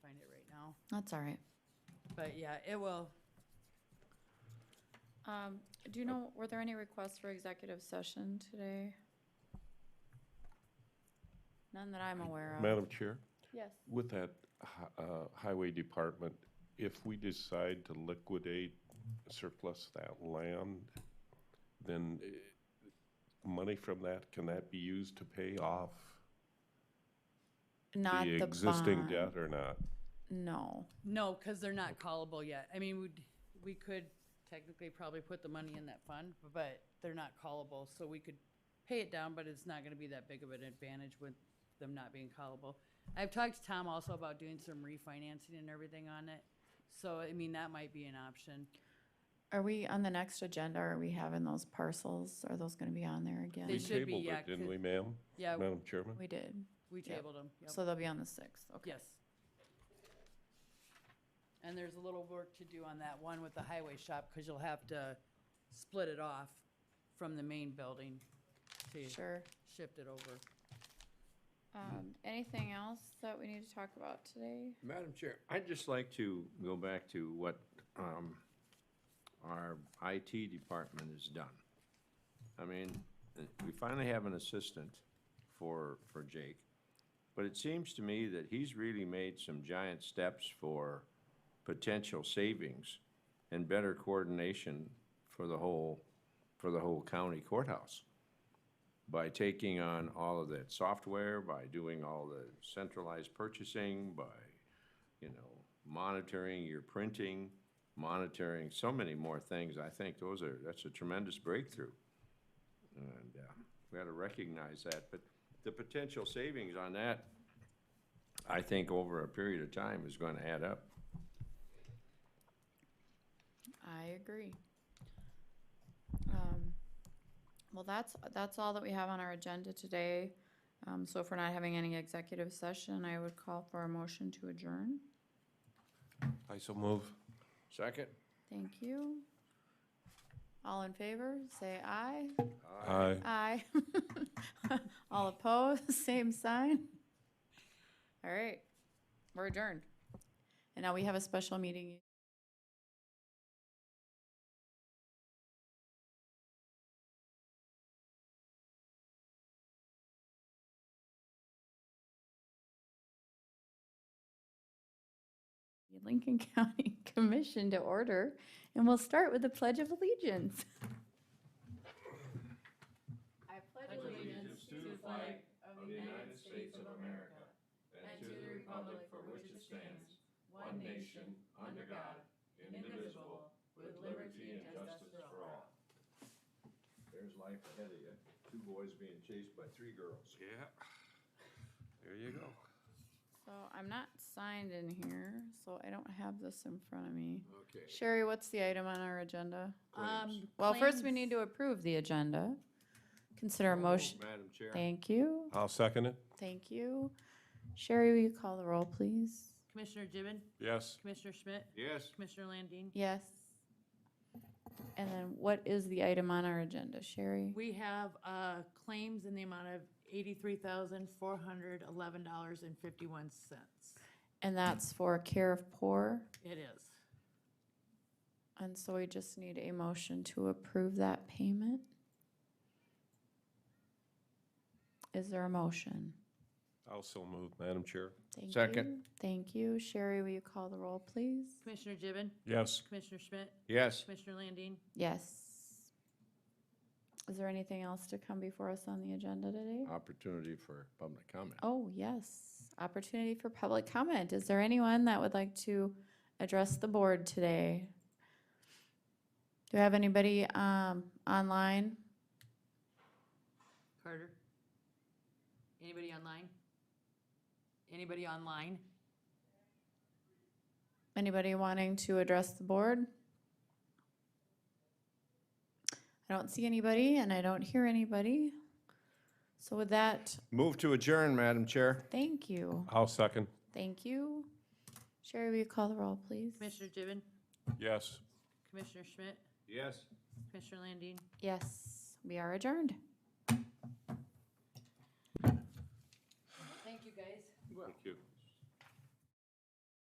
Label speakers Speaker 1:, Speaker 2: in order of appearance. Speaker 1: That's all right.
Speaker 2: But yeah, it will,
Speaker 1: Um, do you know, were there any requests for executive session today? None that I'm aware of.
Speaker 3: Madam Chair,
Speaker 1: Yes.
Speaker 3: with that hi- uh, highway department, if we decide to liquidate surplus that land, then eh, money from that, can that be used to pay off
Speaker 1: Not
Speaker 3: the
Speaker 1: the
Speaker 3: existing
Speaker 1: bond.
Speaker 3: debt or not?
Speaker 1: No.
Speaker 2: no, because they're not callable yet. I mean, we'd, we could technically probably put the money in that fund, but they're not callable, so we could pay it down, but it's not gonna be that big of an advantage with them not being callable. I've talked to Tom also about doing some refinancing and everything on it, so, I mean, that might be an option.
Speaker 1: Are we on the next agenda? Are we having those parcels? Are those gonna be on there
Speaker 2: They
Speaker 3: We
Speaker 1: again?
Speaker 2: should be,
Speaker 3: tabled
Speaker 2: yeah,
Speaker 3: it, Didn't
Speaker 2: 'cause-
Speaker 3: we, ma'am?
Speaker 2: Yeah,
Speaker 3: Madam Chairman?
Speaker 1: We did.
Speaker 2: we
Speaker 1: Yep.
Speaker 2: tabled them,
Speaker 1: So they'll be on the sixth, okay.
Speaker 2: yes. And there's a little work to do on that one with the highway shop, because you'll have to split it off from the main building to
Speaker 1: Sure.
Speaker 2: shift it over.
Speaker 1: Um, anything else that we need to talk about today?
Speaker 4: Madam Chair, I'd just like to go back to what um, our IT department has done. I mean, uh, we finally have an assistant for, for Jake, but it seems to me that he's really made some giant steps for potential savings and better coordination for the whole, for the whole county courthouse by taking on all of that software, by doing all the centralized purchasing, by, you know, monitoring your printing, monitoring so many more things. I think those are, that's a tremendous breakthrough. And uh, we got to recognize that, but the potential savings on that, I think over a period of time is going to add up.
Speaker 1: I agree. Um, Well, that's, that's all that we have on our agenda today. Um, So if we're not having any executive session, I would call for a motion to adjourn.
Speaker 3: I so move.
Speaker 4: Second?
Speaker 1: Thank you. All in favor, say aye.
Speaker 3: Aye.
Speaker 1: Aye. All opposed, same sign. All right, we're adjourned. And now we have a special meeting. Lincoln County Commission to order, and we'll start with the Pledge of Allegiance. I pledge allegiance to the flag of the United States of America and to the republic for which it stands, one nation, under God, indivisible, with liberty and justice for all.
Speaker 4: There's life ahead of you. Two boys being chased by three girls.
Speaker 3: Yeah. There you go.
Speaker 1: So I'm not signed in here, so I don't have this in front of me.
Speaker 4: Okay.
Speaker 1: Sherry, what's the item on our agenda?
Speaker 4: Claims.
Speaker 2: Um,
Speaker 1: Well, first we need to approve the agenda. Consider a
Speaker 4: Oh,
Speaker 1: motion.
Speaker 4: Madam Chair.
Speaker 1: Thank you,
Speaker 3: I'll second it.
Speaker 1: thank you. Sherry, will you call the roll, please?
Speaker 2: Commissioner Gibbon,
Speaker 3: Yes.
Speaker 2: Commissioner Schmidt,
Speaker 4: Yes.
Speaker 2: Commissioner Landine.
Speaker 1: Yes. And then what is the item on our agenda, Sherry?
Speaker 2: We have uh, claims in the amount of eighty-three thousand, four hundred, eleven dollars and fifty-one cents.
Speaker 1: And that's for care of poor.
Speaker 2: It is.
Speaker 1: And so we just need a motion to approve that payment. Is there a motion?
Speaker 3: I'll so move, Madam Chair.
Speaker 1: Thank
Speaker 4: Second.
Speaker 1: you. Thank you. Sherry, will you call the roll, please?
Speaker 2: Commissioner Gibbon,
Speaker 3: Yes.
Speaker 2: Commissioner Schmidt,
Speaker 4: Yes.
Speaker 2: Commissioner Landine.
Speaker 1: Yes. Is there anything else to come before us on the agenda today?
Speaker 4: Uh, Opportunity for public comment.
Speaker 1: Oh, yes. Opportunity for public comment. Is there anyone that would like to address the board today? Do I have anybody um, online?
Speaker 2: Carter? Anybody online? Anybody online?
Speaker 1: Anybody wanting to address the board? I don't see anybody and I don't hear anybody. So with that,
Speaker 4: Move to adjourn, Madam Chair.
Speaker 1: thank you.
Speaker 3: I'll second.
Speaker 1: Thank you. Sherry, will you call the roll, please?
Speaker 2: Commissioner Gibbon,
Speaker 3: Yes.
Speaker 2: Commissioner Schmidt,
Speaker 4: Yes.
Speaker 2: Commissioner Landine.
Speaker 1: Yes, we are adjourned.
Speaker 2: Thank you, guys.
Speaker 3: Thank you.